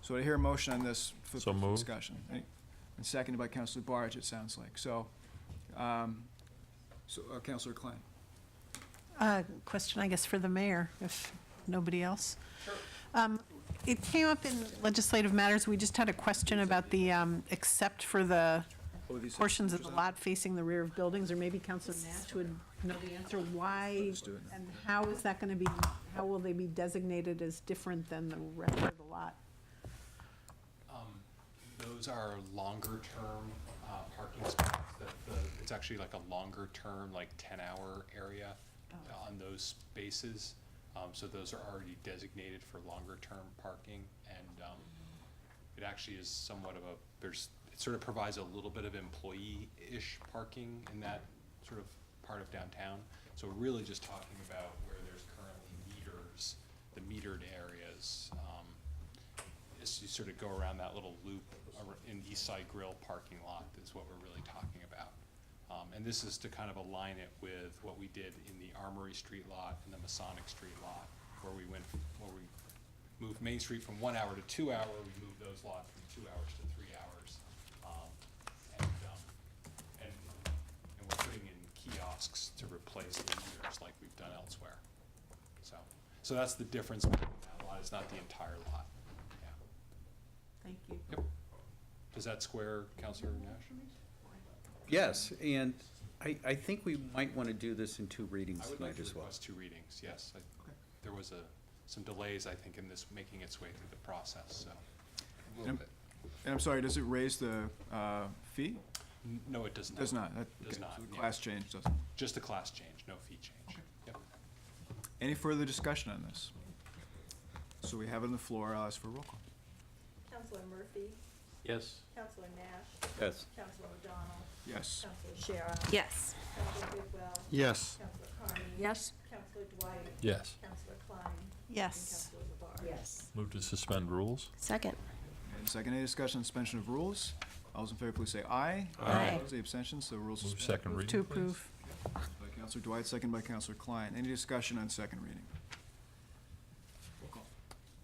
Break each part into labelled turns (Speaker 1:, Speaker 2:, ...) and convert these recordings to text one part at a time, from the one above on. Speaker 1: So I hear a motion on this for
Speaker 2: So
Speaker 1: for
Speaker 2: moved.
Speaker 1: discussion. Any- And seconded by Counselor Barge, it sounds like. So, um, so uh, Counselor Klein.
Speaker 3: Uh, Question, I guess, for the mayor, if nobody else. Um, It came up in legislative matters, we just had a question about the, um, except for the
Speaker 1: Oh, these-
Speaker 3: portions of the lot facing the rear of buildings, or maybe Counselor Nash would know the answer, why
Speaker 1: Let's do it now.
Speaker 3: and how is that going to be, how will they be designated as different than the rest of the lot?
Speaker 4: Um, Those are longer-term uh, parking spots. that the- It's actually like a longer-term, like 10-hour area uh, on those spaces. Um, So those are already designated for longer-term parking. And um, it actually is somewhat of a, there's, it sort of provides a little bit of employee-ish parking in that sort of part of downtown. So we're really just talking about where there's currently meters, the metered areas. um, is you sort of go around that little loop ar- in East Side Grill parking lot is what we're really talking about. Um, and this is to kind of align it with what we did in the Armory Street lot and the Masonic Street lot, where we went, where we moved Main Street from one hour to two hour, we moved those lots from two hours to three hours. Um, and, um, and, and we're putting in kiosks to replace the meters like we've done elsewhere. So, so that's the difference between that lot, it's not the entire lot, yeah.
Speaker 3: Thank you.
Speaker 4: Yep. Does that square, Counselor Nash?
Speaker 5: Yes, and I, I think we might want to do this in two readings
Speaker 4: I would like
Speaker 5: tonight
Speaker 4: to
Speaker 5: as well.
Speaker 4: request two readings, yes. I-
Speaker 1: Okay.
Speaker 4: There was a, some delays, I think, in this making its way through the process, so.
Speaker 1: And and I'm sorry, does it raise the uh, fee?
Speaker 4: N- No, it does not.
Speaker 1: Does not. that-
Speaker 4: Does
Speaker 1: okay,
Speaker 4: not,
Speaker 1: so the
Speaker 4: yeah.
Speaker 1: Class change doesn't.
Speaker 4: Just a class change, no fee change. Yep.
Speaker 1: Any further discussion on this? So we have it on the floor, I'll ask for a roll call.
Speaker 6: Counselor Murphy,
Speaker 2: Yes.
Speaker 6: Counselor Nash,
Speaker 5: Yes.
Speaker 6: Counselor O'Donnell,
Speaker 1: Yes.
Speaker 6: Counselor Shara,
Speaker 7: Yes.
Speaker 6: Counselor Bidwell,
Speaker 8: Yes.
Speaker 6: Counselor Carney.
Speaker 7: Yes.
Speaker 6: Counselor Dwight.
Speaker 2: Yes.
Speaker 6: Counselor Klein.
Speaker 3: Yes.
Speaker 6: And Counselor Labarge. Yes.
Speaker 2: Move to suspend rules?
Speaker 7: Second.
Speaker 1: And second, any discussion on suspension of rules? All those in favor, please say aye.
Speaker 7: Aye.
Speaker 1: Opposed, Any abstentions? The rules
Speaker 2: Move
Speaker 1: suspended.
Speaker 2: second reading,
Speaker 3: To
Speaker 2: please.
Speaker 3: approve.
Speaker 1: By Counselor Dwight, second by Counselor Klein. Any discussion on second reading? Roll call.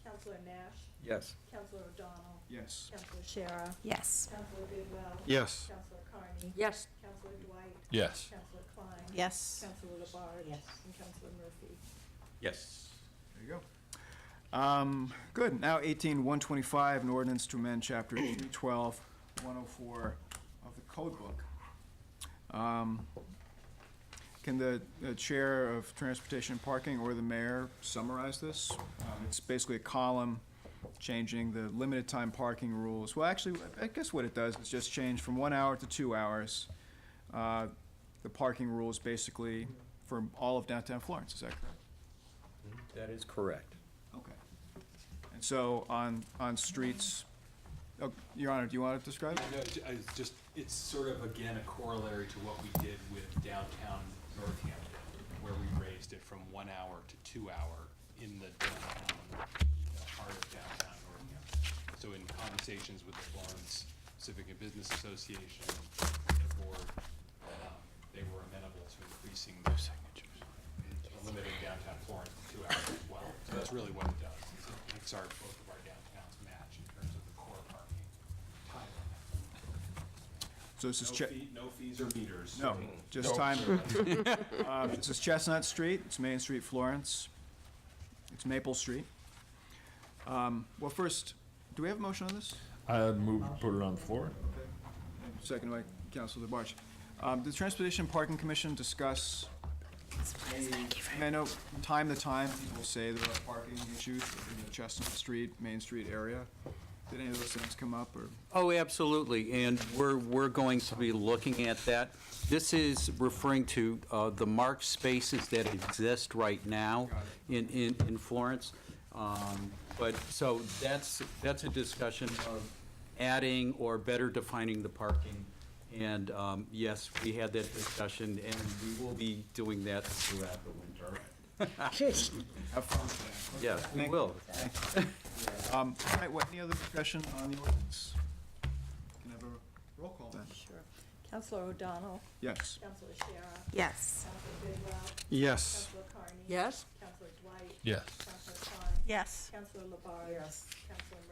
Speaker 6: Counselor Nash,
Speaker 5: Yes.
Speaker 6: Counselor O'Donnell,
Speaker 1: Yes.
Speaker 6: Counselor Shara,
Speaker 7: Yes.
Speaker 6: Counselor Bidwell.
Speaker 8: Yes.
Speaker 6: Counselor Carney.
Speaker 7: Yes.
Speaker 6: Counselor Dwight,
Speaker 2: Yes.
Speaker 6: Counselor Klein.
Speaker 3: Yes.
Speaker 6: Counselor Labarge. Yes. And Counselor Murphy.
Speaker 5: Yes.
Speaker 1: There you go. Um, Good. Now 18, 125, an ordinance to amend Chapter 312, 104 of the Code Book. Um, Can the the Chair of Transportation and Parking or the Mayor summarize this? Um, It's basically a column changing the limited time parking rules. Well, actually, I guess what it does is just change from one hour to two hours, uh, the parking rules basically for all of downtown Florence, is that correct?
Speaker 5: That is correct.
Speaker 1: Okay. And so on, on streets, oh, Your Honor, do you want to describe?
Speaker 4: No, ju- I just, it's sort of, again, a corollary to what we did with downtown Northampton, where we raised it from one hour to two hour in the downtown, uh, part of downtown Northampton. So in conversations with the Florence Civic and Business Association, the board, um, they were amenable to increasing the, to limiting downtown Florence to two hours as well. So that's really what it does, is it makes our, both of our downtowns match in terms of the core parking time limit.
Speaker 1: So this is,
Speaker 4: No
Speaker 1: Che-
Speaker 4: fee- No fees or meters.
Speaker 1: no, just time. Uh, This is Chestnut Street, it's Main Street, Florence, it's Maple Street. Um, Well, first, do we have a motion on this?
Speaker 2: I move to put it on the floor?
Speaker 1: Second by Counselor Labarge. Um, Did the Transportation and Parking Commission discuss any, I mean, I know time to time, people say there are parking issues in the Chestnut Street, Main Street area. Did any of those things come up, or?
Speaker 5: Oh, absolutely, and we're, we're going to be looking at that. This is referring to uh, the marked spaces that exist right now in, in in Florence. Um, But, so that's, that's a discussion of adding or better defining the parking. And um, yes, we had that discussion, and we will be doing that throughout the winter.
Speaker 1: Have fun with that.
Speaker 5: Yes, we will.
Speaker 1: Um, all right, what, any other discussion on the ordinance? Can I have a roll call then?
Speaker 6: Sure. Counselor O'Donnell,
Speaker 1: Yes.
Speaker 6: Counselor Shara,
Speaker 7: Yes.
Speaker 6: Counselor Bidwell,
Speaker 8: Yes.
Speaker 6: Counselor Carney.
Speaker 7: Yes.
Speaker 6: Counselor Dwight.
Speaker 2: Yes.
Speaker 6: Counselor Klein.
Speaker 3: Yes.
Speaker 6: Counselor Labarge. Yes. Counselor Murphy.